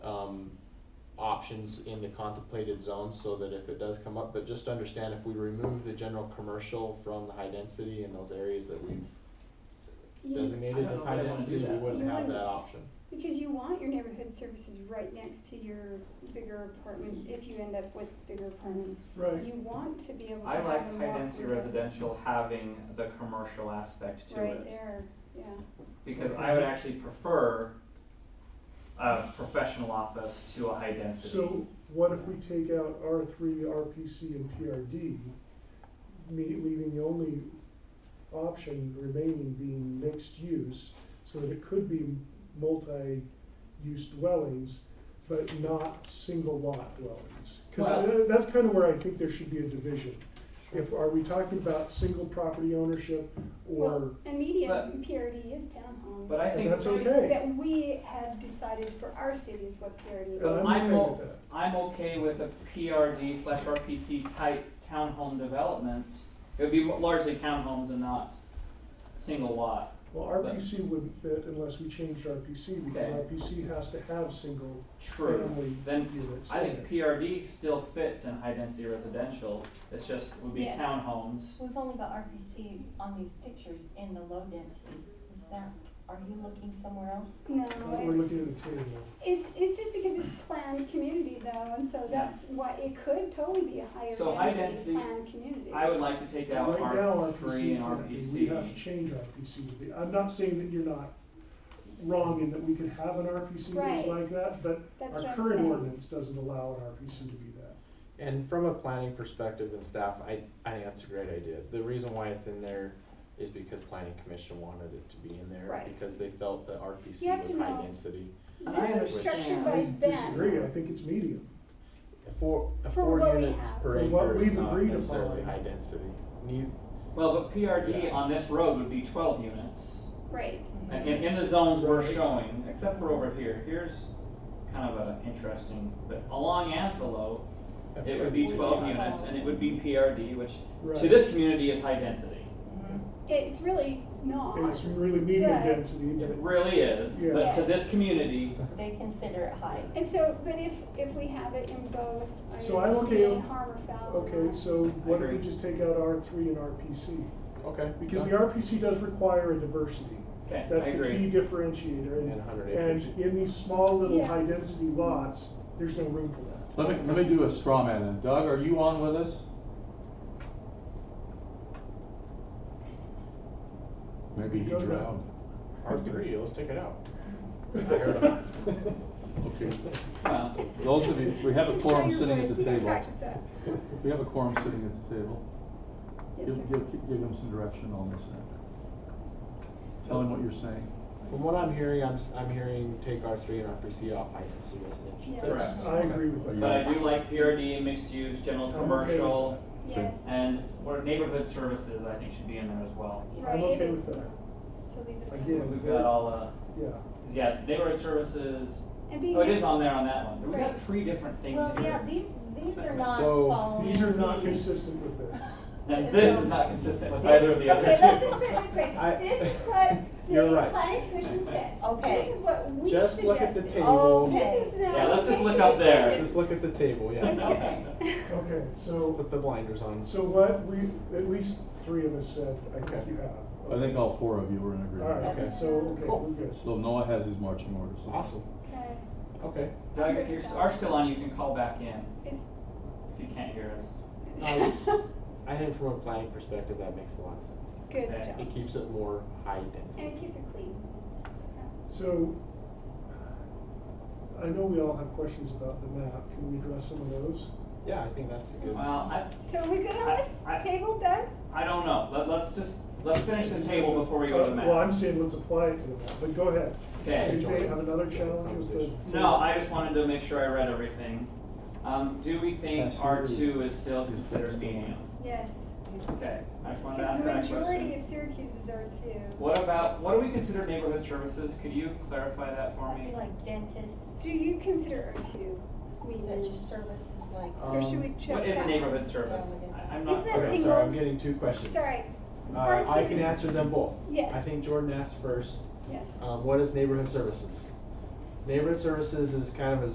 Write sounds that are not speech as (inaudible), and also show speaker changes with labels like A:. A: um, options in the contemplated zone so that if it does come up, but just understand if we remove the general commercial from the high density in those areas that we've
B: You,
A: designated as
C: I don't know
A: high
C: if I wanna
A: density,
C: do
A: we
C: that.
A: wouldn't
B: You
A: have
B: wouldn't.
A: that option.
B: because you want your neighborhood services right next to your bigger apartments, if you end up with bigger apartments.
C: Right.
B: You want to be able to
D: I
B: have
D: like
B: them
D: high
B: walk
D: density
B: from
D: residential having the commercial aspect to
B: Right
D: it,
B: there, yeah.
D: because I would actually prefer a professional office to a high density.
C: So what if we take out R three, RPC, and PRD, me, leaving the only option remaining being mixed use, so that it could be multi-use dwellings, but not single lot dwellings? Cause
D: Well-
C: I- that's kind of where I think there should be a division. If, are we talking about single property ownership or,
B: Well, And medium
D: But-
B: PRD is townhomes.
D: But I
C: and
D: think-
C: that's okay,
B: That we have decided for our city is what PRD is.
C: But I'm
D: I'm
C: okay
D: o-
C: with that.
D: I'm okay with a PRD slash RPC type townhome development. It would be largely townhomes and not single lot.
C: Well, RPC wouldn't fit unless we changed RPC, because
D: Okay.
C: RPC has to have single
D: True.
C: family
D: Then
C: units.
D: I
C: in
D: think
C: it.
D: PRD still fits in high density residential, it's just, would be
E: Yes.
D: townhomes.
E: We've only got RPC on these pictures in the low density. Is that, are you looking somewhere else?
B: No,
C: We're
B: it's,
C: looking at a table.
B: it's, it's just because it's planned community though, and so
D: Yeah.
B: that's why, it could totally be a higher
D: So high
B: density
D: density,
B: planned community.
D: I would like to take out
C: Right now,
D: R three
C: RPC,
D: and
C: can't be. we have to
D: RPC.
C: change RPC to be, I'm not saying that you're not wrong in that we could have an RPC that's
B: Right.
C: like that, but
B: That's what
C: our
B: I'm
C: current
B: saying.
C: ordinance doesn't allow an RPC to be that.
A: And from a planning perspective and staff, I, I think that's a great idea. The reason why it's in there is because planning commission wanted it to be in there
B: Right.
A: because they felt that RPC
B: You have
A: was
B: to
A: high
B: know.
A: density.
D: And I
B: This is structured
D: understand.
B: by them.
C: I disagree, I think it's medium.
A: A four, a
B: For
A: four
B: what we
A: units
B: have.
A: per
C: For what
A: acre is
C: we've
A: not
C: agreed
A: necessarily
C: upon.
A: high density. Ne-
D: Well, but PRD
A: Yeah.
D: on this road would be twelve units.
B: Right,
D: And in, in the zones we're
C: Right.
D: showing, except for over here, here's kind of an interesting, but along Antelope, it would be
E: Where's
D: twelve
E: that?
D: units and it would be PRD, which to
C: Right.
D: this community is high density.
B: it's really not.
C: It's really medium
B: Yeah.
C: density,
D: It
C: but
D: really is, but
B: Yeah.
D: to this community,
E: They consider it high.
B: And so, but if, if we have it in both,
C: So
B: I
C: I'm
B: don't
C: okay
B: see any
C: with-
B: harm or foul. in
C: Okay,
B: that.
C: so what if we
D: agree.
C: just take out R three and RPC?
A: Okay.
C: Because the RPC does require a diversity.
D: okay, I
C: That's the
D: agree.
C: key differentiator.
A: And
C: And,
A: 100 acres.
C: and in these small little
B: Yeah.
C: high-density lots, there's no room for that.
F: Let me, let me do a straw man then. Doug, are you on with us? Maybe he
C: Go ahead.
F: drowned.
A: R three, let's take it out. heard him.
F: Okay,
D: Well,
F: those of you, we have a
B: Just try
F: quorum
B: your
F: sitting
B: voice,
F: at the
B: you can
F: table.
B: practice that.
F: We have a quorum sitting at the table.
B: Yes,
F: Give,
B: sir.
F: give, give him some direction on this thing. Tell him what you're saying.
A: From what I'm hearing, I'm, s- I'm hearing take R three and R three C off high density residential.
B: Yeah.
D: Correct.
C: I agree with that.
F: Are you-
D: but I do like PRD and mixed use, general
C: I'm okay with
D: commercial,
B: Yes,
D: and or neighborhood services, I think should be in there as well.
B: right.
C: I'm okay
B: it-
C: with that.
B: So leave it.
C: Again.
D: We've got all, uh,
C: Yeah.
D: yeah, neighborhood services,
B: And being
D: oh, it is
B: next-
D: on there on that one, we got
B: Right.
D: three different things here.
E: Well, yeah, these, these are not
A: So,
E: following.
C: These are not
E: the-
C: consistent with this.
D: And this is not consistent with either of the other two.
B: Okay, let's just put it this
A: I-
B: way, this is what
A: You're
B: the
A: right.
B: planning commission said.
E: Okay.
B: This is what we suggested.
A: Just look at the table.
E: Oh.
B: This is now.
D: Yeah, let's just
B: we
D: look
B: make
D: up
B: the
D: there.
B: decision.
A: Just look at the table, yeah.
B: Okay.
C: (laughs) Okay, so,
A: Put the blinders on.
C: so what we, at least three of us said, I think
A: Okay.
C: you have.
F: I think all four of you were in
C: All right,
F: agreement.
C: okay,
A: Okay.
C: so, okay,
A: Cool.
C: we're good.
F: So Noah has his marching orders.
A: Awesome,
B: Okay.
A: okay.
D: (laughs) Doug, if you are still on, you can call back in
B: It's-
D: if you can't hear us. Um,
B: (laughs)
A: I think from a planning perspective, that makes a lot of sense.
B: Good
D: Okay.
B: job.
A: It keeps it more high density.
B: And it keeps it clean.
C: So, I know we all have questions about the map. Can we address some of those?
A: Yeah, I think that's a good.
D: Well, I,
B: So are we good
D: I-
B: on
D: I-
B: this table, Doug?
D: I don't know, let, let's just, let's finish the table before we go to the
C: Well, I'm
D: map.
C: saying let's apply it to the map, but go ahead.
D: Okay.
C: Do they have another challenge with the?
D: No, I just wanted to make sure I read everything. Um, do we think
F: Yes, it
D: R
F: is.
D: two is still
F: It's
D: considered
F: fixed on
D: medium?
B: Yes.
D: Okay, I just wanted to
B: Because
D: ask
B: the
D: that
B: majority
D: question.
B: of Syracuse's are too.
D: What about, what do we consider neighborhood services? Could you clarify that for
E: That'd
D: me?
E: be like dentist,
B: Do you consider R two?
E: research services like.
B: Or should we check?
D: Um, What is a
B: that?
D: neighborhood service?
E: Yeah, what is
D: I-
E: it?
D: I'm not.
B: Isn't that
A: Okay,
B: single-
A: sorry, I'm getting two questions.
B: Sorry,
A: Uh, I can
B: Aren't you-
A: answer them both.
B: Yes.
A: I think Jordan asked first,
B: yes.
A: um, what is neighborhood services? Neighborhood services is kind of a